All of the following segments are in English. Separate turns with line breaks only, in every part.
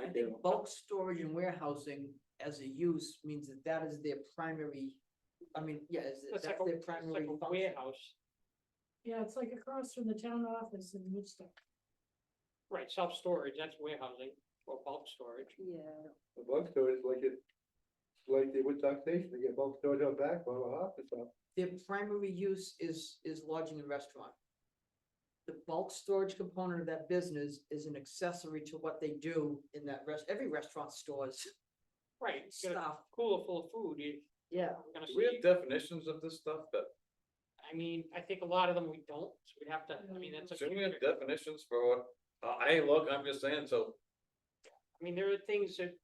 I think bulk storage and warehousing as a use means that that is their primary, I mean, yeah, is
It's
that's
like a-
their
it's like
primary
a
function.
Warehouse,
Yeah, it's like across from the town office in Woodstock.
right, self-storage, that's warehousing or bulk storage.
Yeah.
The bulk storage, like it, like the Woodstock Station, they get bulk storage out back, or a office up.
Their primary use is, is lodging and restaurant. The bulk storage component of that business is an accessory to what they do in that rest, every restaurant stores
Right, you got a
stuff.
cooler full of food, you-
Yeah.
you're gonna
Do we
see,
have definitions of this stuff that,
I mean, I think a lot of them we don't, so we have to, I mean, that's a.
shouldn't we have definitions for what, I, I look, I'm just saying, so
I mean, there are things that,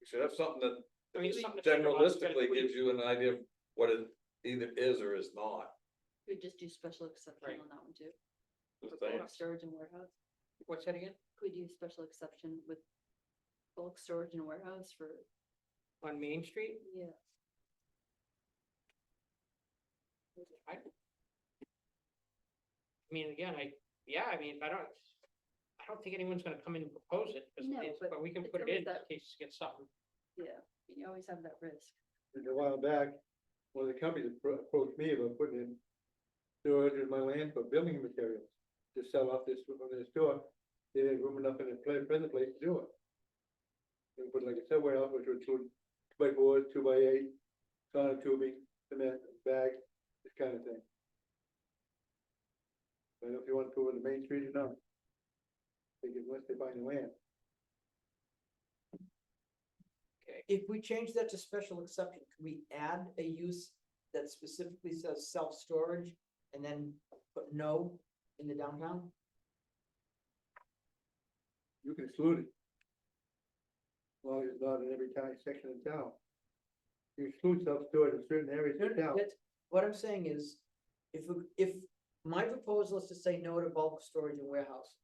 we should have something that
I mean, it's something. to think about, it's gotta
generalistically
put-
gives you an idea of what it either is or is not.
Could just do special exception
Right.
on that one too.
the
for
thing.
Bulk storage and warehouse.
What's that again?
Could do special exception with bulk storage and warehouse for,
On Main Street?
yeah.
I don't- I mean, again, I, yeah, I mean, if I don't, I don't think anyone's gonna come in and propose it, 'cause
No,
it's-
but
but we can
if
put it
there was
in in
that-
case you get something.
Yeah, you always have that risk.
And a while back, one of the companies appro- approached me about putting in storage in my land for building materials to sell off this, from their store. They didn't have room enough in their pla- present place to do it. They put like a subway out, which would include two by fours, two by eight, sauna tubing, cement, bag, this kind of thing. I don't know if you want to go in the main street or not. They can, once they find the land.
If we change that to special exception, can we add a use that specifically says self-storage and then put no in the downtown?
You can exclude it. As long as it's not in every county section of town. You exclude self-storage in certain areas
No,
of
no,
town.
that's- What I'm saying is, if, we- if, my proposal is to say no to bulk storage and warehouse.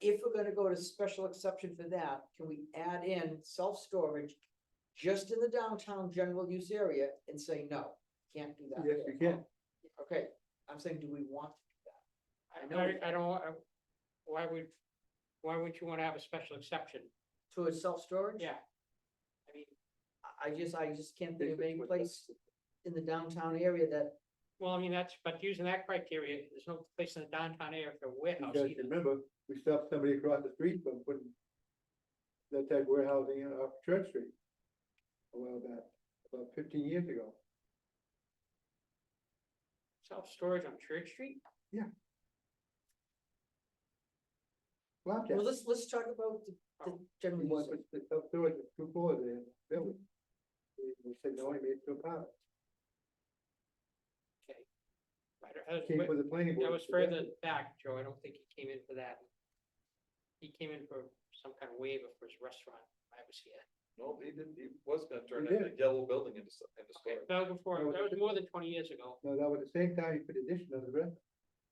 If we're gonna go to special exception for that, can we add in self-storage just in the downtown general use area and say no, can't do that?
Yes, you can.
Okay, I'm saying, do we want,
I,
I know.
I- I don't, wa- I- why would, why would you wanna have a special exception?
to a self-storage?
Yeah. I mean,
I- I just, I just can't think of any place in the downtown area that,
well, I mean, that's, but using that criteria, there's no place in the downtown area for a warehouse
Because
either.
remember, we stopped somebody across the street from putting that type of warehousing in off Church Street. A while back, about fifteen years ago.
Self-storage on Church Street?
Flapjack,
well, let's, let's talk about the,
Oh.
the
he
general
wanted
use.
to put self-storage with two floors there, in the building. They- They said, no, I made it to a pilot.
I don't- I don't-
Came
but
for the planning board.
That was further back, Joe. I don't think he came in for that. He came in for some kind of waiver for his restaurant. when I was here.
No, he didn't, he was gonna turn
He
that yellow building into, so- into
Okay,
storage.
that was before,
No,
that was
it's-
more than twenty years ago.
No, that was the same time you put addition on the rest,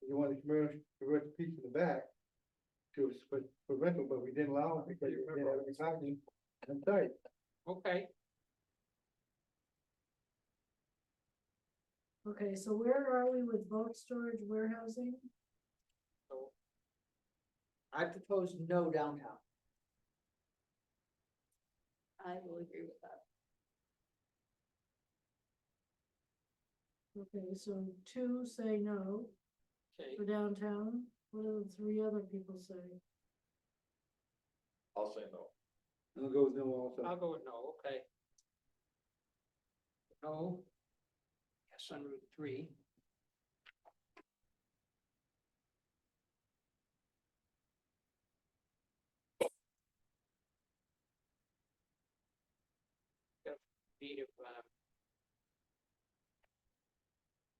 you wanted to convert, convert the piece in the back. To, s- for, for rental, but we didn't allow it because we didn't have any parking, I'm sorry,
Okay,
Okay, so where are we with bulk storage warehousing?
so
I propose no downtown.
I will agree with that.
Okay, so two say no
okay,
for downtown. What do the three other people say?
I'll say no.
and it goes no also,
I'll go with no, okay. No. Yes, on Route three. Got Feet of, um.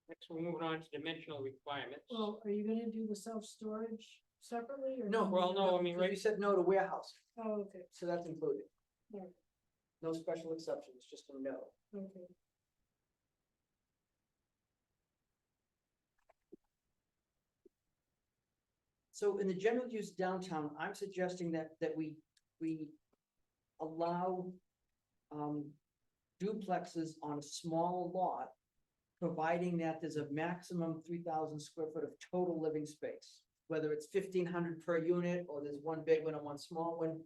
Next, we're moving on to dimensional requirements.
Well, are you gonna do the self-storage separately or?
No.
Well, no, I
because
mean,
You
right-
said no to warehouse,
Oh, okay,
so that's included.
Yeah.
No special exceptions, just a no.
okay.
So in the general use downtown, I'm suggesting that, that we, we allow um, duplexes on a small lot, providing that there's a maximum three thousand square foot of total living space. Whether it's fifteen hundred per unit, or there's one big one and one small one,